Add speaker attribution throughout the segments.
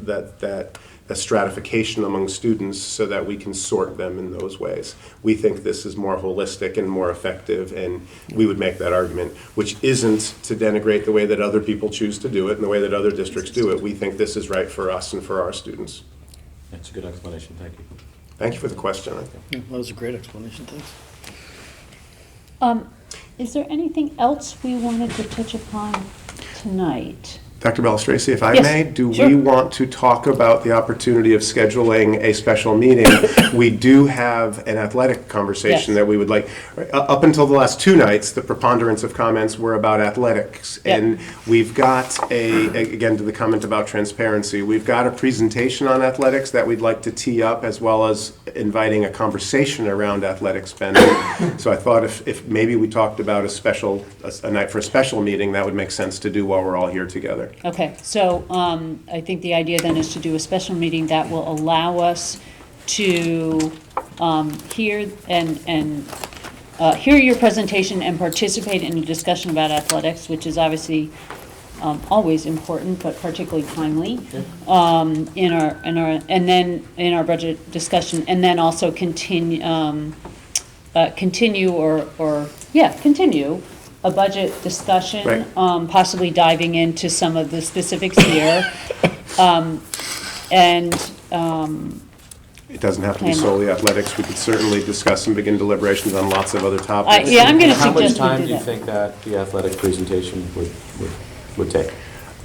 Speaker 1: that, that, that stratification among students so that we can sort them in those ways. We think this is more holistic and more effective, and we would make that argument, which isn't to denigrate the way that other people choose to do it and the way that other districts do it. We think this is right for us and for our students.
Speaker 2: That's a good explanation, thank you.
Speaker 1: Thank you for the question.
Speaker 3: Yeah, That was a great explanation, thanks.
Speaker 4: Um, is there anything else we wanted to touch upon tonight?
Speaker 1: Dr. Bellistraci, if I
Speaker 4: Yes,
Speaker 1: may, do we
Speaker 4: sure.
Speaker 1: want to talk about the opportunity of scheduling a special meeting? We do have an athletic conversation
Speaker 4: Yes.
Speaker 1: that we would like, uh, up until the last two nights, the preponderance of comments were about athletics.
Speaker 4: Yep.
Speaker 1: And we've got a, again, to the comment about transparency, we've got a presentation on athletics that we'd like to tee up, as well as inviting a conversation around athletic spending. So I thought if, if maybe we talked about a special, a a night for a special meeting, that would make sense to do while we're all here together.
Speaker 4: Okay, so um, I think the idea then is to do a special meeting that will allow us to um, hear and, and uh, hear your presentation and participate in a discussion about athletics, which is obviously um, always important, but particularly timely um, in our, in our, and then in our budget discussion, and then also continue, um, uh, continue or, or, yeah, continue a budget discussion.
Speaker 1: Right.
Speaker 4: Um, possibly diving into some of the specifics here. Um, and, um,
Speaker 1: It doesn't have to be
Speaker 4: Plan.
Speaker 1: solely athletics. We could certainly discuss and begin deliberations on lots of other
Speaker 4: I,
Speaker 1: topics.
Speaker 4: yeah, I'm gonna
Speaker 2: How much
Speaker 4: suggest
Speaker 2: time do
Speaker 4: we do
Speaker 2: you
Speaker 4: that.
Speaker 2: think that the athletic presentation would, would, would take?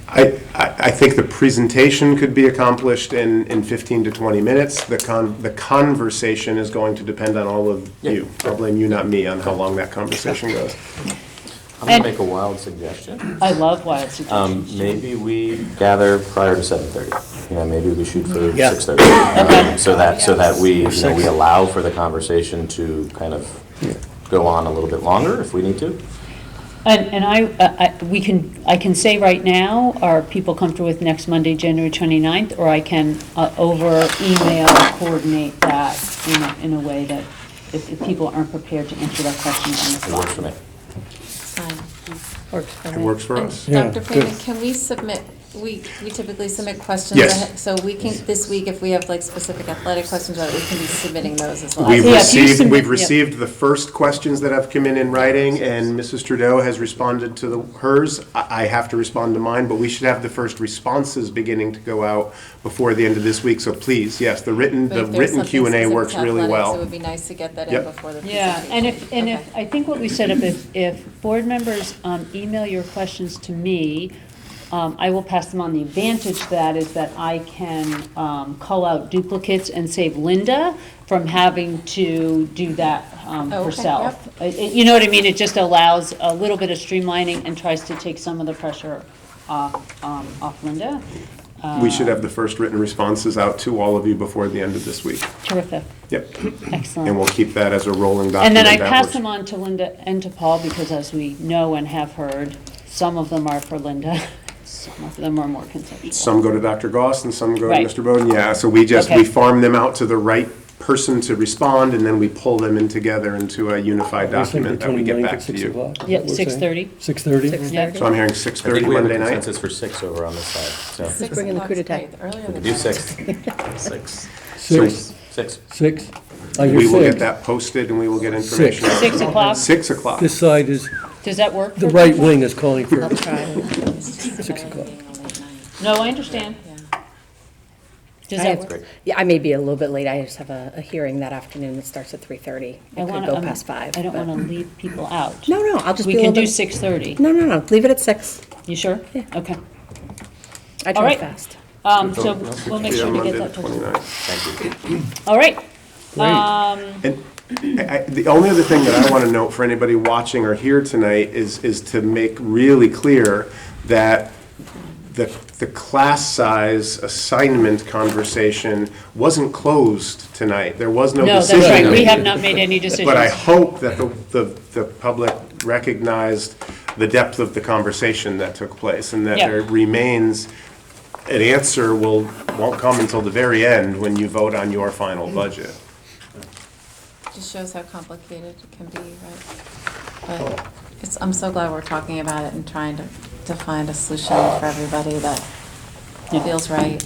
Speaker 1: I, I I think the presentation could be accomplished in, in 15 to 20 minutes. The con, the conversation is going to depend on all of
Speaker 2: Yeah.
Speaker 1: you. I'll blame you, not me, on how long that conversation goes.
Speaker 2: I'm gonna
Speaker 4: And-
Speaker 2: make a wild suggestion.
Speaker 4: I love wild
Speaker 2: Um,
Speaker 4: suggestions.
Speaker 2: maybe we gather prior to seven thirty. You know, maybe we shoot for
Speaker 3: Yeah.
Speaker 2: six thirty. Um,
Speaker 4: Okay.
Speaker 2: So that, so that we, you know, we
Speaker 3: Six.
Speaker 2: allow for the conversation to kind of go on a little bit longer if we need to.
Speaker 4: And, and I, uh, I, I- we can, I can say right now, are people comfortable with next Monday, January 29th? Or I can uh, over email coordinate that in a, in a way that if, if people aren't prepared to answer that question on the
Speaker 2: It
Speaker 4: fly.
Speaker 2: works for me.
Speaker 5: Fine. Works for
Speaker 1: It
Speaker 5: me.
Speaker 1: works for
Speaker 5: And
Speaker 1: us.
Speaker 3: Yeah,
Speaker 5: Dr.
Speaker 3: good.
Speaker 5: Freeman, can we submit, we, we typically submit questions?
Speaker 1: Yes.
Speaker 5: ahead- So we can, this week, if we have like specific athletic questions, uh, we can be submitting those as well.
Speaker 1: We've
Speaker 4: Yeah, if you
Speaker 1: received,
Speaker 4: submit-
Speaker 1: we've
Speaker 4: yeah.
Speaker 1: received the first questions that have come in in writing, and Mrs. Trudeau has responded to the, hers. I, I have to respond to mine, but we should have the first responses beginning to go out before the end of this week, so please, yes, the written,
Speaker 5: But
Speaker 1: the
Speaker 5: if there's
Speaker 1: written
Speaker 5: something
Speaker 1: Q and A
Speaker 5: specific
Speaker 1: works
Speaker 5: to
Speaker 1: really
Speaker 5: athletics, It
Speaker 1: well.
Speaker 5: would be nice to get that in
Speaker 1: Yep.
Speaker 5: before the
Speaker 4: Yeah, and
Speaker 5: presentation.
Speaker 4: if, and if,
Speaker 5: Okay.
Speaker 4: I think what we set up is if board members um, email your questions to me, um, I will pass them on. The advantage to that is that I can um, call out duplicates and save Linda from having to do that um,
Speaker 5: Okay,
Speaker 4: herself. Uh, it- You know what I mean? It just allows a little bit of streamlining and tries to take some of the pressure off, um, off Linda.
Speaker 1: We should have the first written responses out to all of you before the end of this week.
Speaker 4: Terrific,
Speaker 1: Yep,
Speaker 4: excellent.
Speaker 1: and we'll keep that as a rolling
Speaker 4: And
Speaker 1: document.
Speaker 4: then I
Speaker 1: that
Speaker 4: pass
Speaker 1: works.
Speaker 4: them on to Linda and to Paul, because as we know and have heard, some of them are for Linda, some of them are more conceptual.
Speaker 1: Some go to Dr. Goss and some go to
Speaker 4: Right.
Speaker 1: Mr. Bowden, yeah, so we just, we
Speaker 4: Okay.
Speaker 1: farm them out to the right person to respond, and then we pull them in together into a unified document that we get back to you.
Speaker 4: Yeah, 6:30.
Speaker 3: Six thirty?
Speaker 4: Yeah.
Speaker 1: So I'm hearing six
Speaker 2: I
Speaker 1: thirty
Speaker 2: think we have a
Speaker 1: Monday night.
Speaker 2: consensus for six over on this side, so.
Speaker 5: Six
Speaker 6: Bring in the
Speaker 5: o'clock's
Speaker 6: coup d'etat.
Speaker 5: great. The Earlier
Speaker 2: We
Speaker 5: the
Speaker 2: could do
Speaker 5: better.
Speaker 2: six. Six.
Speaker 3: Six, Oh,
Speaker 2: Six.
Speaker 3: six. I
Speaker 1: We
Speaker 3: do
Speaker 1: will get
Speaker 3: six.
Speaker 1: that posted and we will get information. out.
Speaker 4: Six o'clock,
Speaker 1: Six o'clock.
Speaker 3: This side is,
Speaker 4: does that work?
Speaker 3: the
Speaker 4: for
Speaker 3: right
Speaker 4: people?
Speaker 3: wing is calling for,
Speaker 6: I'll try.
Speaker 5: It's just
Speaker 3: Six
Speaker 5: better than
Speaker 3: o'clock.
Speaker 5: being a late night.
Speaker 4: No, I understand.
Speaker 5: Yeah.
Speaker 4: Does
Speaker 6: I
Speaker 4: that
Speaker 6: have-
Speaker 4: work?
Speaker 6: Yeah, I may be a little bit late. I just have a, a hearing that afternoon that starts at three thirty.
Speaker 4: I
Speaker 6: It could
Speaker 4: wanna-
Speaker 6: go
Speaker 4: I'm-
Speaker 6: past five.
Speaker 4: I don't
Speaker 6: but-
Speaker 4: want to leave people out.
Speaker 6: No, no, I'll just be
Speaker 4: We
Speaker 6: a
Speaker 4: can
Speaker 6: little
Speaker 4: do
Speaker 6: bit.
Speaker 4: 6:30.
Speaker 6: No, no, no, leave it at six.
Speaker 4: You sure? Okay.
Speaker 6: I
Speaker 4: All
Speaker 6: drive
Speaker 4: right.
Speaker 6: fast.
Speaker 4: Um, So
Speaker 2: Good vote.
Speaker 4: we'll make
Speaker 1: Yeah,
Speaker 4: sure to
Speaker 1: Monday
Speaker 4: get that
Speaker 1: the
Speaker 4: posted.
Speaker 1: 29th.
Speaker 2: Thank you.
Speaker 4: All right.
Speaker 1: And I, I- the only other thing that I want to note for anybody watching or here tonight is, is to make really clear that the, the class size assignment conversation wasn't closed tonight. There was no
Speaker 4: No, that's
Speaker 1: decision.
Speaker 4: right. We have not made any decisions.
Speaker 1: But I hope that the, the, the public recognized the depth of the conversation that took place and that
Speaker 4: Yeah.
Speaker 1: there remains, an answer will, won't come until the very end when you vote on your final budget.
Speaker 5: Just shows how complicated it can be, right?
Speaker 1: Oh.
Speaker 5: But it's, I'm so glad we're talking about it and trying to, to find a solution for everybody that
Speaker 4: Yeah.
Speaker 5: feels right.